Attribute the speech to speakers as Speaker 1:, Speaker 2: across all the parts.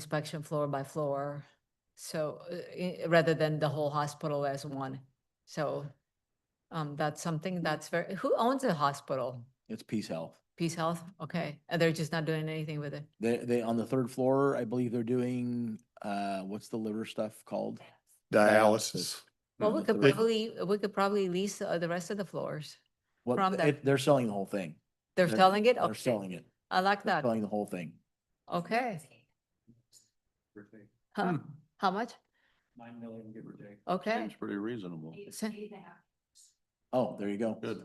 Speaker 1: inspection floor by floor. So uh, i- rather than the whole hospital as one. So um, that's something that's very, who owns the hospital?
Speaker 2: It's Peace Health.
Speaker 1: Peace Health? Okay. And they're just not doing anything with it.
Speaker 2: They, they, on the third floor, I believe they're doing, uh, what's the liver stuff called?
Speaker 3: dialysis.
Speaker 1: Well,
Speaker 2: on
Speaker 1: we
Speaker 2: the
Speaker 1: could
Speaker 2: third-
Speaker 1: probably, we could probably lease uh, the rest of the floors.
Speaker 2: What-
Speaker 1: from the-
Speaker 2: it- They're selling the whole thing.
Speaker 1: They're
Speaker 2: They're-
Speaker 1: selling it?
Speaker 2: They're
Speaker 1: Okay.
Speaker 2: selling it.
Speaker 1: I like
Speaker 2: They're
Speaker 1: that.
Speaker 2: selling the whole thing.
Speaker 1: Okay.
Speaker 4: Hmm.
Speaker 1: Huh? How much?
Speaker 2: Nine million, give or take.
Speaker 1: Okay,
Speaker 3: Seems pretty reasonable.
Speaker 1: So-
Speaker 2: Oh, there you go.
Speaker 3: Good.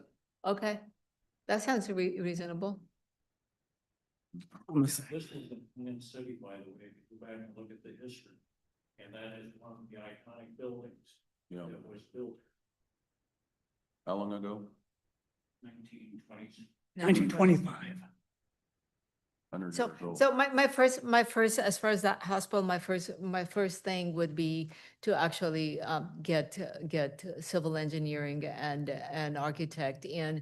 Speaker 1: okay. That sounds re- reasonable.
Speaker 5: This is in Twin City, by the way, if you go back and look at the history. And that is one of the iconic buildings
Speaker 3: Yeah.
Speaker 5: that was built
Speaker 3: How long ago?
Speaker 5: nineteen twenties.
Speaker 4: Nineteen twenty-five.
Speaker 3: Hundred
Speaker 1: So,
Speaker 3: years old.
Speaker 1: so my, my first, my first, as far as that hospital, my first, my first thing would be to actually um, get, get civil engineering and, and architect in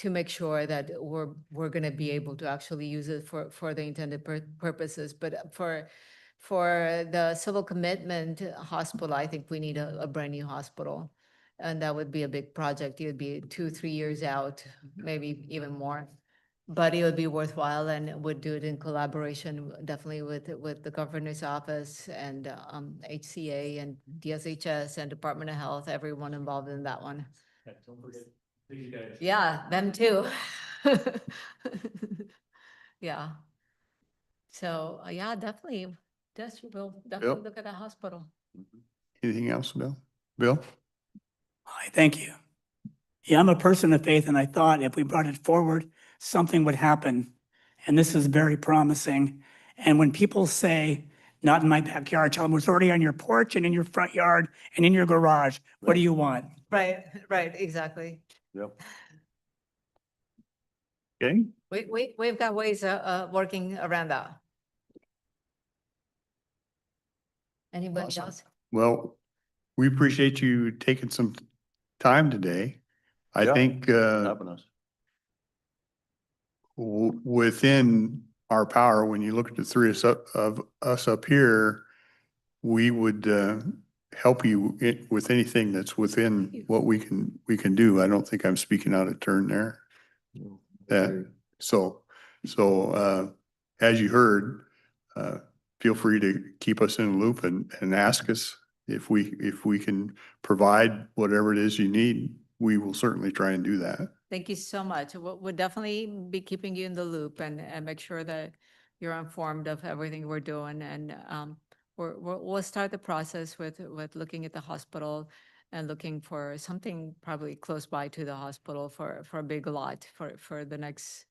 Speaker 1: to make sure that we're, we're going to be able to actually use it for, for the intended pur- purposes. But for, for the civil commitment hospital, I think we need a, a brand new hospital. And that would be a big project. It would be two, three years out,
Speaker 3: Mm-hmm.
Speaker 1: maybe even more but it would be worthwhile and would do it in collaboration definitely with, with the governor's office and um, HCA and DSHS and Department of Health, everyone involved in that one.
Speaker 5: Don't forget these guys.
Speaker 1: Yeah, them too. Yeah. So, uh, yeah, definitely, just will definitely look at the hospital.
Speaker 3: Anything else, Bill? Bill?
Speaker 4: Hi, thank you. Yeah, I'm a person of faith and I thought if we brought it forward, something would happen. And this is very promising. And when people say, not in my backyard, tell them it's already on your porch and in your front yard and in your garage. What do you want?
Speaker 1: Right, right, exactly.
Speaker 3: Yep.
Speaker 1: We, we, we've got ways of, uh, working around that. Anybody
Speaker 3: Awesome.
Speaker 1: else?
Speaker 6: Well, we appreciate you taking some time today. I
Speaker 3: Yeah.
Speaker 6: think uh,
Speaker 3: Helping us.
Speaker 6: w- within our power, when you look at the three of us up- of us up here, we would uh, help you i- with anything that's within what we can, we can do. I don't think I'm speaking out of turn there. That, so, so uh, as you heard, uh, feel free to keep us in the loop and, and ask us if we, if we can provide whatever it is you need, we will certainly try and do that.
Speaker 1: Thank you so much. We'll, we'll definitely be keeping you in the loop and, and make sure that you're informed of everything we're doing and, um, we're, we're, we'll start the process with, with looking at the hospital and looking for something probably close by to the hospital for, for a big lot, for, for the next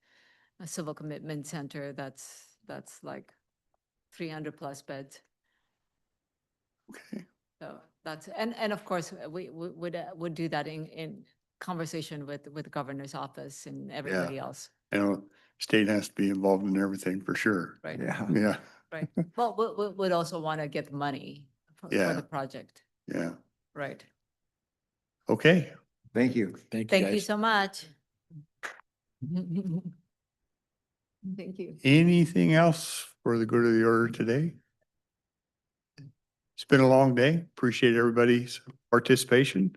Speaker 1: uh, civil commitment center that's, that's like three hundred plus beds.
Speaker 6: Okay.
Speaker 1: So that's, and, and of course, uh, we, we would, uh, would do that in, in conversation with, with the governor's office and everybody else.
Speaker 6: You know, state has to be involved in everything for sure.
Speaker 1: Right.
Speaker 3: Yeah.
Speaker 6: Yeah,
Speaker 1: Well, we, we would also want to get money for, for
Speaker 6: Yeah.
Speaker 1: the project.
Speaker 6: yeah.
Speaker 1: Right.
Speaker 6: Okay.
Speaker 3: Thank you.
Speaker 2: Thank you
Speaker 1: Thank you
Speaker 2: guys.
Speaker 1: so much. Thank you.
Speaker 6: Anything else for the good of the order today? It's been a long day. Appreciate everybody's participation.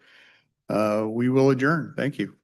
Speaker 6: Uh, we will adjourn. Thank you.